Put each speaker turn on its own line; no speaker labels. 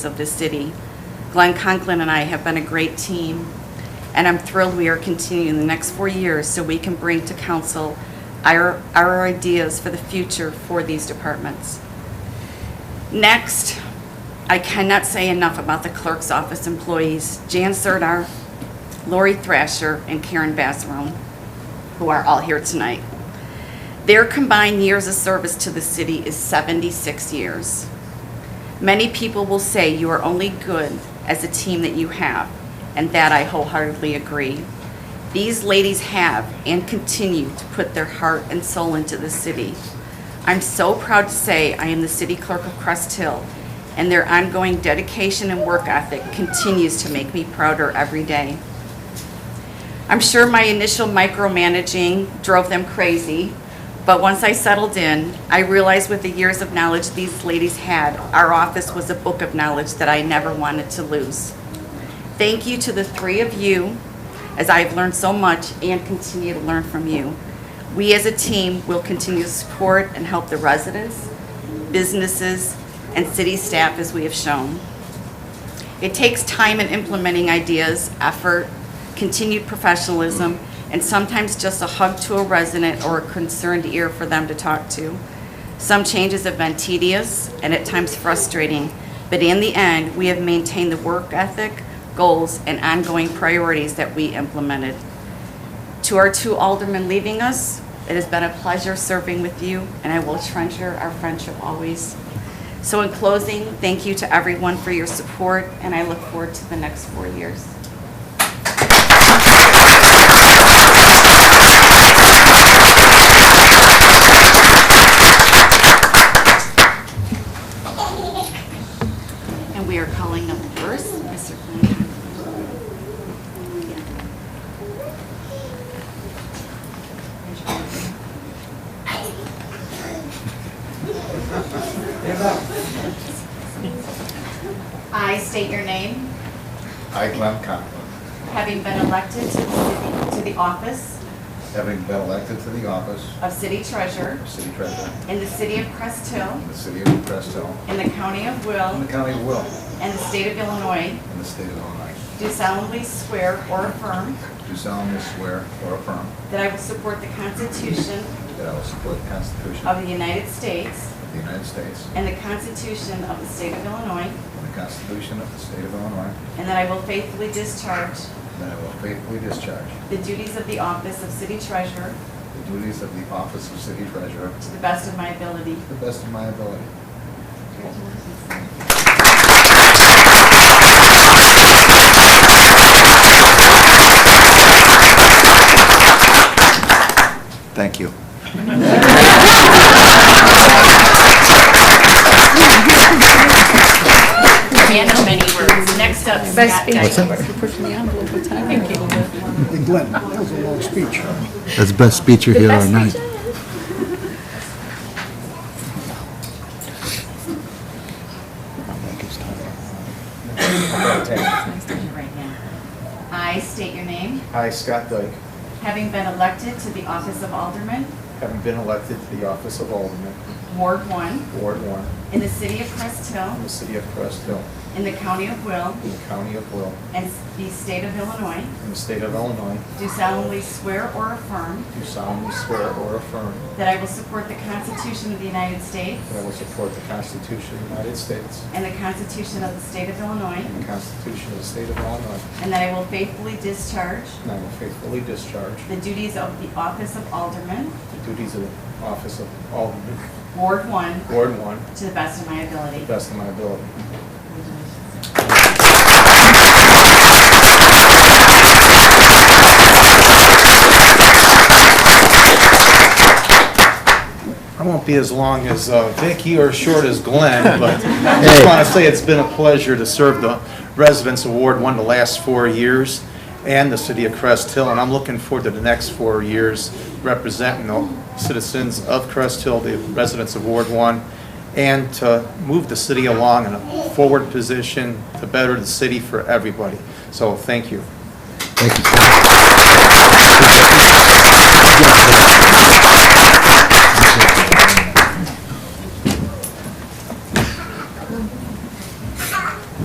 of the city. Glenn Conklin and I have been a great team, and I'm thrilled we are continuing the next four years so we can bring to council our, our ideas for the future for these departments. Next, I cannot say enough about the clerk's office employees, Jan Serdar, Lori Thrasher, and Karen Basarone, who are all here tonight. Their combined years of service to the city is 76 years. Many people will say you are only good as a team that you have, and that I wholeheartedly agree. These ladies have and continue to put their heart and soul into the city. I'm so proud to say I am the city clerk of Crest Hill, and their ongoing dedication and work ethic continues to make me prouder every day. I'm sure my initial micromanaging drove them crazy, but once I settled in, I realized with the years of knowledge these ladies had, our office was a book of knowledge that I never wanted to lose. Thank you to the three of you, as I've learned so much and continue to learn from you. We as a team will continue to support and help the residents, businesses, and city staff as we have shown. It takes time in implementing ideas, effort, continued professionalism, and sometimes just a hug to a resident or a concerned ear for them to talk to. Some changes have been tedious and at times frustrating, but in the end, we have maintained the work ethic, goals, and ongoing priorities that we implemented. To our two aldermen leaving us, it has been a pleasure serving with you, and I will treasure our friendship always. So in closing, thank you to everyone for your support, and I look forward to the next four years. And we are calling up first, Mr. Glenn. I state your name,
I, Glenn Conklin,
having been elected to the city- to the office
having been elected to the office
of city treasurer
of city treasurer
in the city of Crest Hill,
in the city of Crest Hill,
in the county of
in the
Will,
county of Will,
and the state of Illinois,
in the state of Illinois,
do solemnly swear or affirm
do solemnly swear or affirm
that I will support the Constitution
that I will support the Constitution
of
of
the United States
the United States
and the Constitution of the state of Illinois,
and the Constitution of the state of Illinois,
and that I will faithfully discharge
and that I will faithfully discharge
the duties of the office of city treasurer
the duties of the office of city treasurer
to the best of my ability.
to the best of my ability. Thank you.
Man of many words. Next up, Scott Dyke.
Hey Glenn, that was a long speech.
That's the best speech you hear all night.
I state your name,
I, Scott Dyke,
having been elected to the office of alderman,
having been elected to the office of Alderman,
Ward 1,
Ward 1,
in the city of Crest Hill,
in the city of Crest Hill,
in the county of Will,
in the county of Will,
and the state of Illinois,
in the state of Illinois,
do solemnly swear or affirm
do solemnly swear or affirm
that I will support the Constitution of the United States
that I will support the Constitution of the United States
and the Constitution of the state of Illinois,
and the Constitution of the state of Illinois,
and that I will faithfully discharge
and I will faithfully discharge
the duties of the office of alderman,
the duties of the office of Alderman,
Ward 1,
Ward 1, to
to the best of my ability.
the best of my ability.
I won't be as long as uh, Vicky or short as Glenn, but I just want to say it's been a pleasure to serve the Residents Award, one of the last four years, and the city of Crest Hill, and I'm looking forward to the next four years representing the citizens of Crest Hill, the Residents Award one, and to move the city along in a forward position to better the city for everybody. So, thank you.
Thank you, sir.